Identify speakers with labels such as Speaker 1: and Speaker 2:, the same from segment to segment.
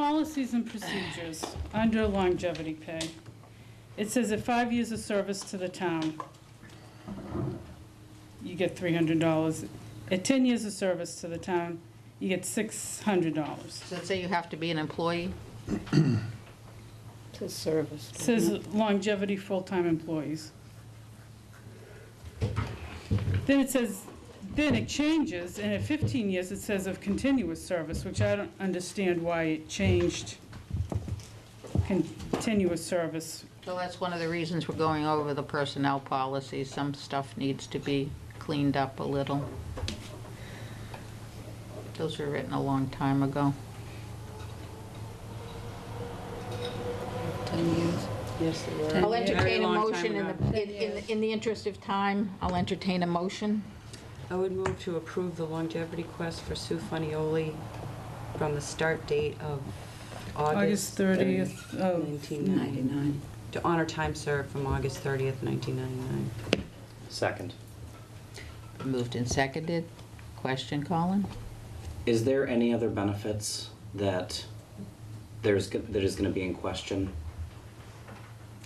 Speaker 1: policies and procedures under longevity pay, it says at five years of service to the town, you get three hundred dollars. At ten years of service to the town, you get six hundred dollars.
Speaker 2: Does it say you have to be an employee?
Speaker 3: To service.
Speaker 1: Says longevity full-time employees. Then it says, then it changes, and at 15 years, it says of continuous service, which I don't understand why it changed continuous service.
Speaker 2: So that's one of the reasons we're going over the personnel policy. Some stuff needs to be cleaned up a little. Those were written a long time ago.
Speaker 3: Ten years. Yes, they were.
Speaker 2: I'll
Speaker 1: years. Very
Speaker 2: entertain a
Speaker 1: long time
Speaker 2: motion in
Speaker 1: ago.
Speaker 2: the, in- in, the- in the interest of time, I'll entertain a motion.
Speaker 3: I would move to approve the longevity quest for Sue Funioli from the start date of
Speaker 1: August oh.
Speaker 3: August
Speaker 1: 30th of,
Speaker 3: 1999. To honor time served from August 30th, 1999.
Speaker 4: Second.
Speaker 2: Moved and seconded. Question, Colin?
Speaker 4: Is there any other benefits that there's, go- that is gonna be in question?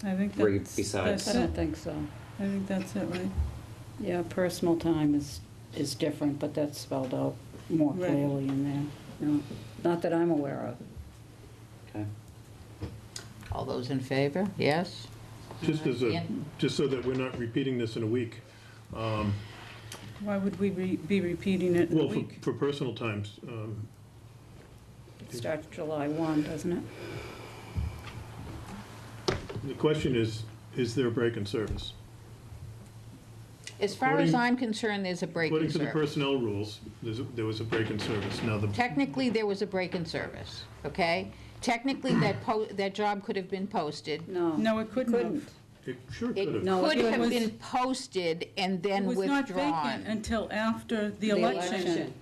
Speaker 1: I think
Speaker 4: Read
Speaker 1: that's,
Speaker 4: besides.
Speaker 1: that's
Speaker 5: I
Speaker 1: it.
Speaker 5: don't think so.
Speaker 1: I think that's it, right?
Speaker 5: Yeah, personal time is, is different, but that's spelled out more
Speaker 1: Right.
Speaker 5: clearly in there. No, Not that I'm aware of.
Speaker 4: Okay.
Speaker 2: All those in favor? Yes?
Speaker 6: Just as a,
Speaker 2: Ian?
Speaker 6: just so that we're not repeating this in a week. um,
Speaker 1: Why would we re- be repeating it in a
Speaker 6: Well, for,
Speaker 1: week?
Speaker 6: for personal times, um,
Speaker 5: It starts July 1, doesn't it?
Speaker 6: the question is, is there a break in service?
Speaker 2: As far as
Speaker 6: According-
Speaker 2: I'm concerned, there's a break in
Speaker 6: According to the
Speaker 2: service.
Speaker 6: personnel rules, there's, a- there was a break in service. Now, the,
Speaker 2: Technically, there was a break in service, okay? Technically, that po, that job could have been posted.
Speaker 5: No.
Speaker 1: No, it couldn't have.
Speaker 6: it sure
Speaker 2: It
Speaker 6: could have.
Speaker 5: No,
Speaker 2: could
Speaker 5: it
Speaker 2: have
Speaker 1: was-
Speaker 2: been posted and
Speaker 1: It
Speaker 2: then
Speaker 1: was not vacant
Speaker 2: withdrawn.
Speaker 1: until after the
Speaker 5: The
Speaker 1: election.
Speaker 5: election.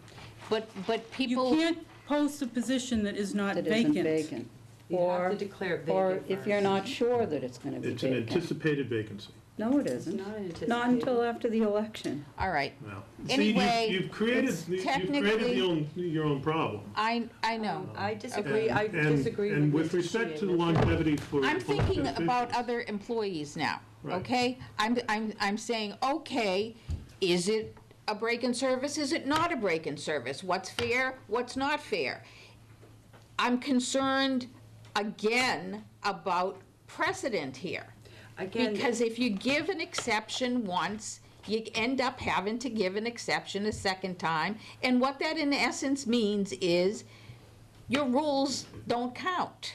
Speaker 2: But, but
Speaker 1: You
Speaker 2: people,
Speaker 1: can't post a position that is not
Speaker 5: That
Speaker 1: vacant.
Speaker 5: isn't vacant.
Speaker 3: You have
Speaker 5: Or,
Speaker 3: to declare vacant
Speaker 5: or if you're
Speaker 3: first.
Speaker 5: not sure that it's going to be
Speaker 6: It's an
Speaker 5: vacant.
Speaker 6: anticipated vacancy
Speaker 5: No, it isn't.
Speaker 3: Not
Speaker 5: Not
Speaker 3: anticipated.
Speaker 5: until after the election.
Speaker 2: all right,
Speaker 6: now. See,
Speaker 2: Anyway,
Speaker 6: you've- You've created,
Speaker 2: it's
Speaker 6: you've created
Speaker 2: technically-
Speaker 6: your own, your own problem.
Speaker 2: I, I know.
Speaker 3: I disagree, I
Speaker 6: Um, And- and-
Speaker 3: disagree with
Speaker 6: And with
Speaker 3: Mrs.
Speaker 6: respect to
Speaker 3: Sheehan.
Speaker 6: longevity for.
Speaker 2: I'm
Speaker 6: for
Speaker 2: thinking about
Speaker 6: officials,
Speaker 2: other employees now,
Speaker 6: Right.
Speaker 2: okay? I'm, I'm, I'm saying, okay, is it a break in service? Is it not a break in service? What's fair? What's not fair? I'm concerned, again, about precedent here.
Speaker 3: Again,
Speaker 2: Because if you give an exception once, you end up having to give an exception a second time. And what that in essence means is your rules don't count.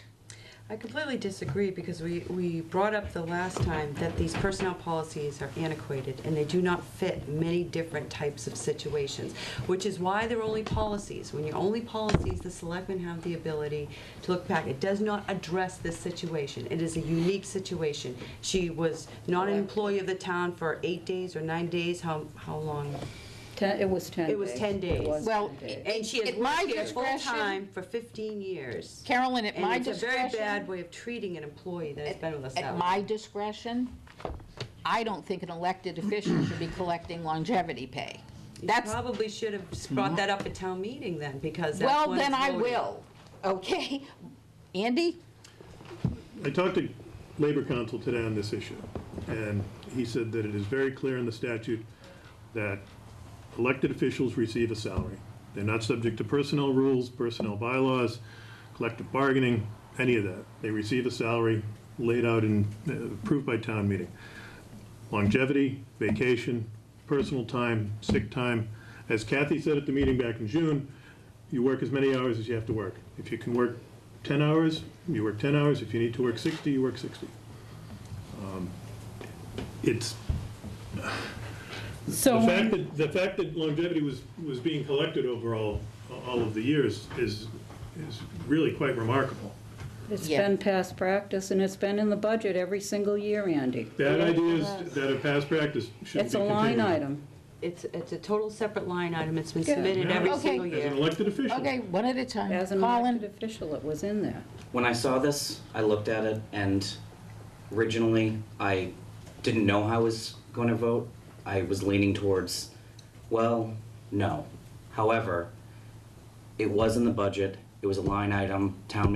Speaker 3: I completely disagree because we, we brought up the last time that these personnel policies are antiquated and they do not fit many different types of situations, which is why they're only policies. When you're only policies, the selectmen have the ability to look back. It does not address this situation. It is a unique situation. She was not an employee of the town for eight days or nine days, how, how long?
Speaker 5: Ten, it was 10 days.
Speaker 3: It was 10 days.
Speaker 5: was
Speaker 2: Well, e-
Speaker 5: 10 days.
Speaker 3: And she has
Speaker 2: At my
Speaker 3: worked here
Speaker 2: discretion-
Speaker 3: full-time for 15 years.
Speaker 2: Carolyn, at my
Speaker 3: And it's a very bad
Speaker 2: discretion,
Speaker 3: way of treating an employee that has been with us that
Speaker 2: at
Speaker 3: long.
Speaker 2: my discretion, I don't think an elected official should be collecting longevity pay.
Speaker 3: You
Speaker 2: That's,
Speaker 3: probably should have s- brought that up at town meeting then, because that's
Speaker 2: well,
Speaker 3: when it's
Speaker 2: then I
Speaker 3: voted.
Speaker 2: will, okay? Andy?
Speaker 6: I talked to Labor Council today on this issue, and he said that it is very clear in the statute that elected officials receive a salary. They're not subject to personnel rules, personnel bylaws, collective bargaining, any of that. They receive a salary laid out and uh, approved by town meeting. Longevity, vacation, personal time, sick time. As Kathy said at the meeting back in June, you work as many hours as you have to work. If you can work 10 hours, you work 10 hours. If you need to work 60, you work 60. Um, It's,
Speaker 1: So
Speaker 6: the
Speaker 1: when-
Speaker 6: fact that, the fact that longevity was, was being collected over all, all of the years is, is really quite remarkable.
Speaker 5: It's
Speaker 2: e- Yeah.
Speaker 5: been past practice, and it's been in the budget every single year, Andy.
Speaker 6: That idea is, that a past practice should be
Speaker 5: It's a line
Speaker 6: continued.
Speaker 5: item.
Speaker 3: It's, it's a total separate line item, it's been
Speaker 5: Yeah.
Speaker 3: submitted every
Speaker 2: Okay.
Speaker 3: single
Speaker 6: As an
Speaker 3: year.
Speaker 6: elected official.
Speaker 2: Okay, one at a time.
Speaker 5: As an
Speaker 2: Colin?
Speaker 5: elected official, it was in there.
Speaker 4: When I saw this, I looked at it and originally I didn't know how I was going to vote. I was leaning towards, well, no. However, it was in the budget, it was a line item, town